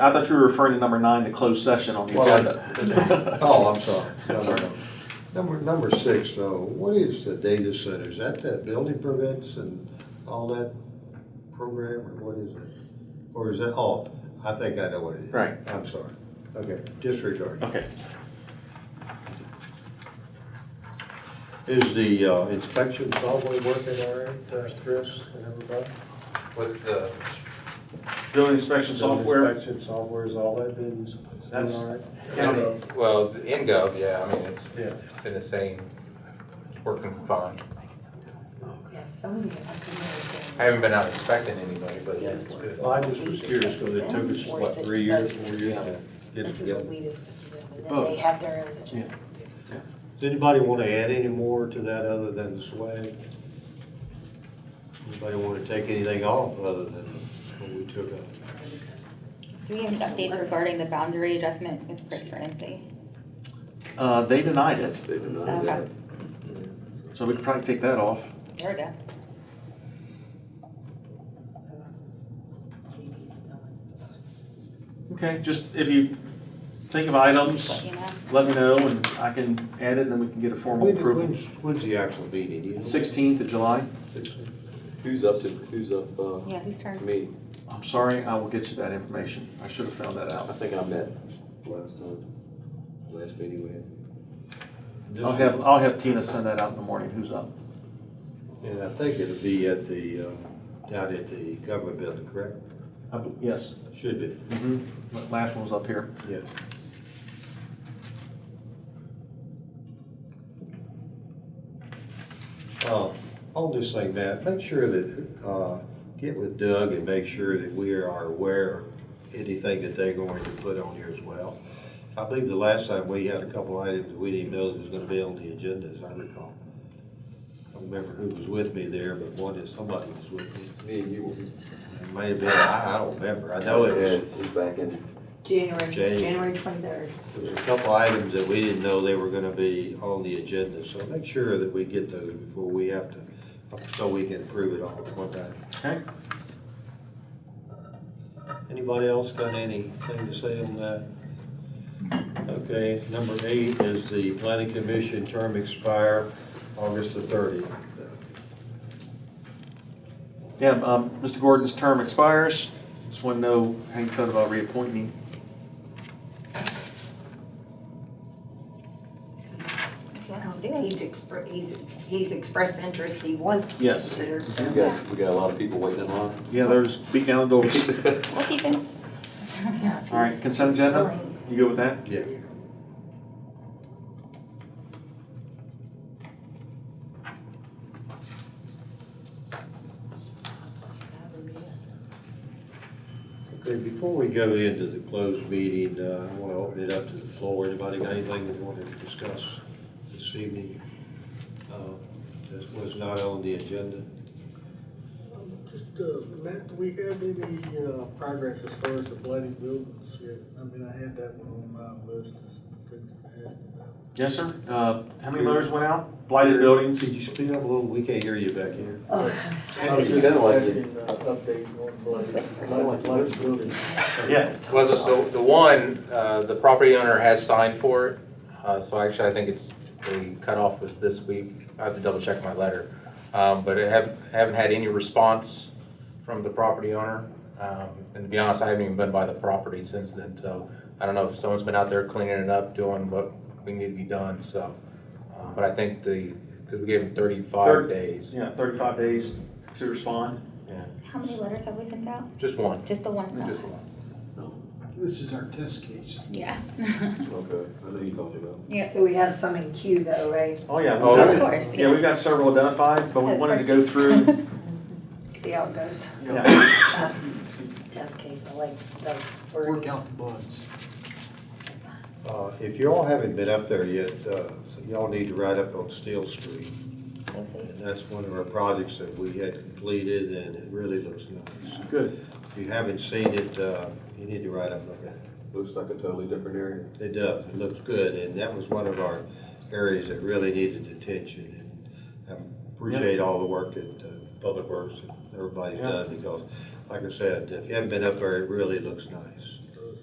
I thought you were referring to number nine, the closed session on the Well, I- agenda. Oh, I'm sorry. No, no, Sorry. no. Number, number six, though, what is the data center? Is that that building permits and all that program, or what is it? Or is that, oh, I think I know what it is. Right. I'm sorry. Okay, disregard. Okay. Is the uh, inspection probably working all right, uh, Chris and everybody? With the, Building inspection software, Inspection software, has all that been That's- doing all right? county, well, the InGov, yeah, I mean, it's Yeah. been the same, it's working fine. Yes, some of you have come I haven't been out inspecting anybody, but yeah, it's good. Well, I just was curious, because it took us, what, three years, four years to get it This is together? what we discussed with them, and Oh. then they have their own agenda. Does anybody want to add any more to that other than the swag? Anybody want to take anything off other than what we took out? Do we have any updates regarding the boundary adjustment with Chris Ramsey? Um, uh, they denied it, They denied Okay, that. so we could probably take that off. there we go. Okay, just if you think of items, Just let you know. let me know and I can add it and then we can get a formal When- approval. When's, when's the actual meeting? you know? Sixteenth of July, Sixteen. Who's up to, who's up, uh, Yeah, whose turn? me? I'm sorry, I will get you that information. I should have found that I out. think I met last time, last meeting we had. I'll have, I'll have Tina send that out in the morning, who's up. And I think it'll be at the, uh, down at the government building, correct? I b- Yes, Should be, mhm, La- mm-hmm. last one was up here. yeah. Uh, On this thing, Matt, make sure that, uh, get with Doug and make sure that we are aware of anything that they're going to put on here as well. I believe the last time we had a couple items that we didn't know that was gonna be on the agenda, as I recall. I don't remember who was with me there, but one is, somebody was with me. Me and you were. It may have been, I I don't remember. I know it was, Yeah, He's back in. January, January. January twenty-third. There's a couple items that we didn't know they were gonna be on the agenda, so make sure that we get those before we have to, so we can approve it all at one time. Okay, Anybody else got anything to say on that? Okay, number eight is the planning commission term expire August the thirtieth. yeah, um, Mr. Gordon's term expires. Just want to know how you felt about reappointing him. He's expre, he's, he's expressed interest, he wants to be Yes. considered, We so, got, we got a lot of people waiting in line. Yeah, there's beat down the doors. We'll keep him. yeah, if All right, he's consent agenda? willing. You good with that? Yeah. Okay, before we go into the closed meeting, uh, I want to open it up to the floor. Anybody got anything they want to discuss this evening? uh, That was not on the agenda? Um, Just, uh, Matt, do we have any uh, progress as far as the blighted buildings yet? I mean, I had that one on my list of things to ask about. Yes, sir. Uh, How many letters went out? Blighted buildings? Could you speak up a little? We can't hear you back here. Oh, I was You just sound like it. asking, uh, update on blighted, blighted- blighted buildings. Yeah. Well, the, the- the one, uh, the property owner has signed for it, uh, so actually, I think it's, the cutoff was this week. I have to double check my letter. Um, But I haven't, haven't had any response from the property owner. Um, And to be honest, I haven't even been by the property since then, so I don't know if someone's been out there cleaning it up, doing what we need to be done, so. uh, But I think the, because we gave them Thirty. thirty-five days, Yeah, 35 days to respond. yeah, How many letters have we sent out? just one, Just the one? just one. This is our test case. Yeah. Okay, I know you talked about. Yeah, So we have some in queue though, right? Oh, yeah. we've Oh, got- of course, Yeah, we've got yes. several identified, but we That's wanted to go first. through. See how it goes. yeah. Test case, I like those. Work out the bugs. Uh, If y'all haven't been up there yet, uh, so y'all need to ride up on Steel Street. we'll see. And that's one of our projects that we had completed, and it really looks nice. Good. If you haven't seen it, uh, you need to write up like that. Looks like a totally different area. It does, it looks good, and that was one of our areas that really needed attention. And I appreciate all the work that uh, Public Works and everybody's Yeah. done, because, like I said, if you haven't been up there, it really looks nice.